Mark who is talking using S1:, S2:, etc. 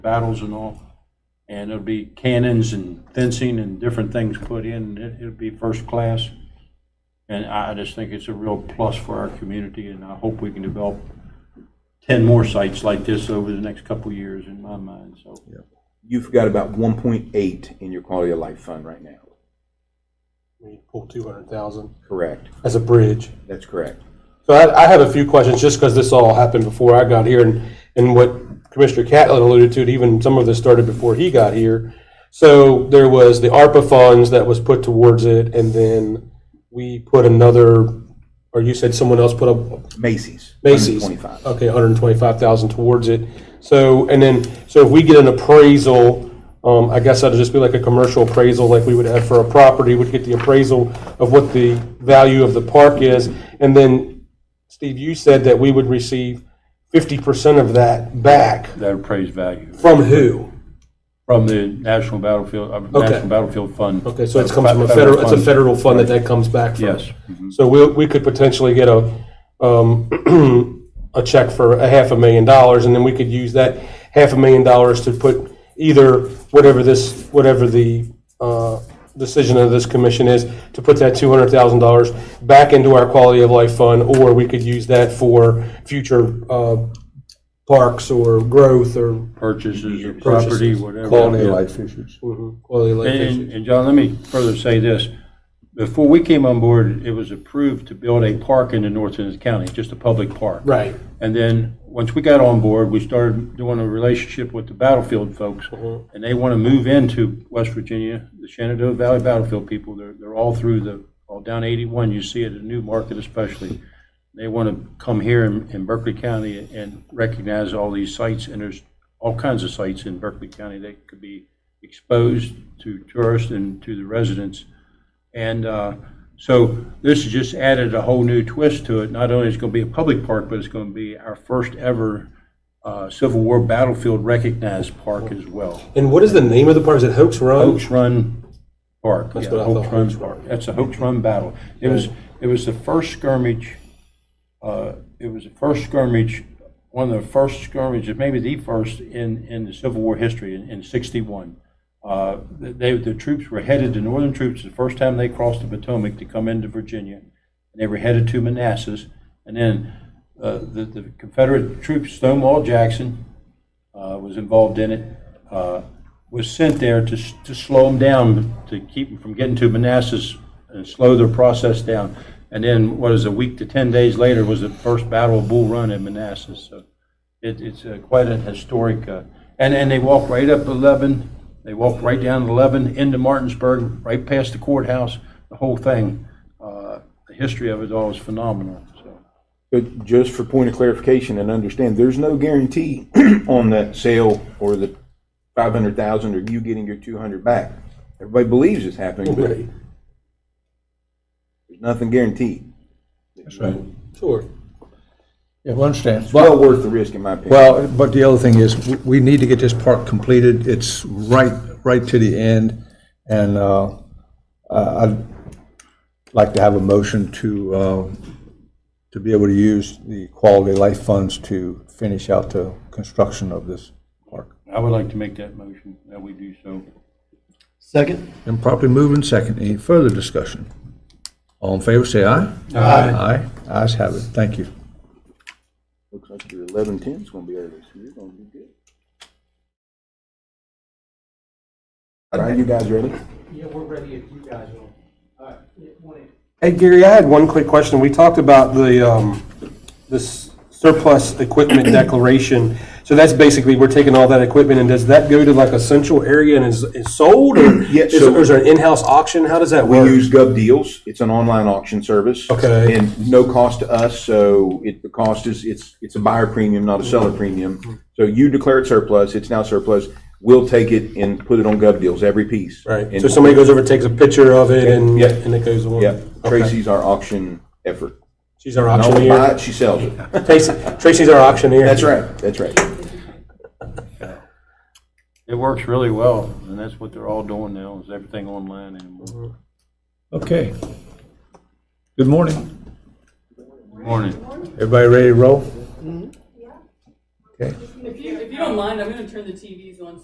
S1: battles and all. And it'll be cannons and fencing and different things put in. It- It'll be first class. And I I just think it's a real plus for our community, and I hope we can develop 10 more sites like this over the next couple of years, in my mind, so.
S2: You've got about one point eight in your quality of life fund right now.
S3: We pull two hundred thousand
S2: Correct.
S3: as a bridge.
S2: That's correct.
S3: So I, I have a few questions, just because this all happened before I got here, and, and what Commissioner Catlin alluded to, and even some of this started before he got here. So there was the ARPA funds that was put towards it, and then we put another, or you said someone else put up
S2: Macy's.
S3: Macy's.
S2: Twenty-five.
S3: Okay, 125,000 towards it. So, and then, so if we get an appraisal, um, I guess that'd just be like a commercial appraisal like we would have for a property, would get the appraisal of what the value of the park is. And then, Steve, you said that we would receive 50% of that back.
S1: That appraised value
S3: From who?
S1: from the National Battlefield, uh, National Battlefield Fund.
S3: Okay, so it
S1: Uh,
S3: comes from a
S1: fe-
S3: federal, it's a
S1: funds.
S3: federal fund that that comes back from.
S1: Yes.
S3: So we, we could potentially get a, um, a check for a half a million dollars, and then we could use that half a million dollars to put either whatever this, whatever the, uh, decision of this commission is, to put that two hundred thousand dollars back into our quality of life fund, or we could use that for future, uh, parks or growth or
S1: Purchases of property, whatever.
S4: Quality
S1: Yeah.
S4: of life issues.
S3: quality of life
S1: And-
S3: issues.
S1: And, and John, let me further say this. Before we came on board, it was approved to build a park in the North Ennis County, just a public park.
S3: Right.
S1: And then, once we got on board, we started doing a relationship with the Battlefield folks. And they want to move into West Virginia, the Shenandoah Valley Battlefield people. They're, they're all through the, all down 81, you see it in Newmarket especially. They want to come here in, in Berkeley County and recognize all these sites. And there's all kinds of sites in Berkeley County that could be exposed to tourists and to the residents. And uh, so this has just added a whole new twist to it. Not only is it going to be a public park, but it's going to be our first ever uh, Civil War battlefield recognized park as well.
S3: And what is the name of the park? Is it Hoax Run?
S1: Hoax Run Park. That's
S3: what I thought, Hoax Run.
S1: That's a Hoax Run battle. It was, it was the first skirmish, uh, it was the first skirmish, one of the first skirmishes, maybe the first in, in the Civil War history in, in 61. Uh, They, the troops were headed, the northern troops, the first time they crossed the Potomac to come into Virginia, and they were headed to Manassas. And then uh, the the Confederate troops, Stonewall Jackson, uh, was involved in it, uh, was sent there to, s- to slow them down, to keep them from getting to Manassas and slow their process down. And then, what is it, a week to 10 days later was the first Battle of Bull Run in Manassas. So it, it's uh, quite an historic, uh, and, and they walk right up 11, they walk right down 11 into Martinsburg, right past the courthouse, the whole thing. Uh, The history of it all is phenomenal, so.
S2: But just for point of clarification and understand, there's no guarantee on that sale or the five hundred thousand or you getting your two hundred back. Everybody believes it's happening, but
S3: Right.
S2: there's nothing guaranteed.
S4: That's right.
S3: Sure.
S4: Yeah, I understand.
S2: It's well worth the risk, in my opinion.
S4: Well, but the other thing is, w- we need to get this park completed. It's right, right to the end. And uh, I- I'd like to have a motion to, uh, to be able to use the quality of life funds to finish out the construction of this park.
S1: I would like to make that motion, that we do so.
S5: Second?
S4: And properly moved and second. Any further discussion? All in favor, say aye. Aye. Aye. Ayes have it. Thank you.
S2: Looks like your eleven ten is gonna be early, so you're gonna be good. All right, you guys ready?
S6: Yeah, we're ready if you guys are. All right.
S3: Hey, Gary, I had one quick question. We talked about the, um, this surplus equipment declaration. So that's basically, we're taking all that equipment, and does that go to like a central area and is, is sold? Or
S2: Yeah,
S3: is
S2: so-
S3: or is there an in-house auction? How does that
S2: We
S3: work?
S2: use Gov Deals. It's an online auction service.
S3: Okay.
S2: And no cost to us, so it, the cost is, it's, it's a buyer premium, not a seller premium. So you declare it surplus, it's now surplus, we'll take it and put it on Gov Deals, every piece.
S3: Right,
S2: And-
S3: so somebody goes over, takes a picture of it, and,
S2: Yeah.
S3: and it goes on?
S2: Yeah,
S3: Okay.
S2: Tracy's our auction effort.
S3: She's our
S2: Not only buy
S3: auctioneer.
S2: it, she sells it.
S3: Tracy- Tracy's our auctioneer.
S2: That's right, that's right.
S1: It works really well, and that's what they're all doing now, is everything online anymore.
S4: Okay. Good morning.
S1: Morning.
S4: Everybody ready to roll? Okay.
S7: If you, if you don't don't mind, I'm gonna turn the TVs on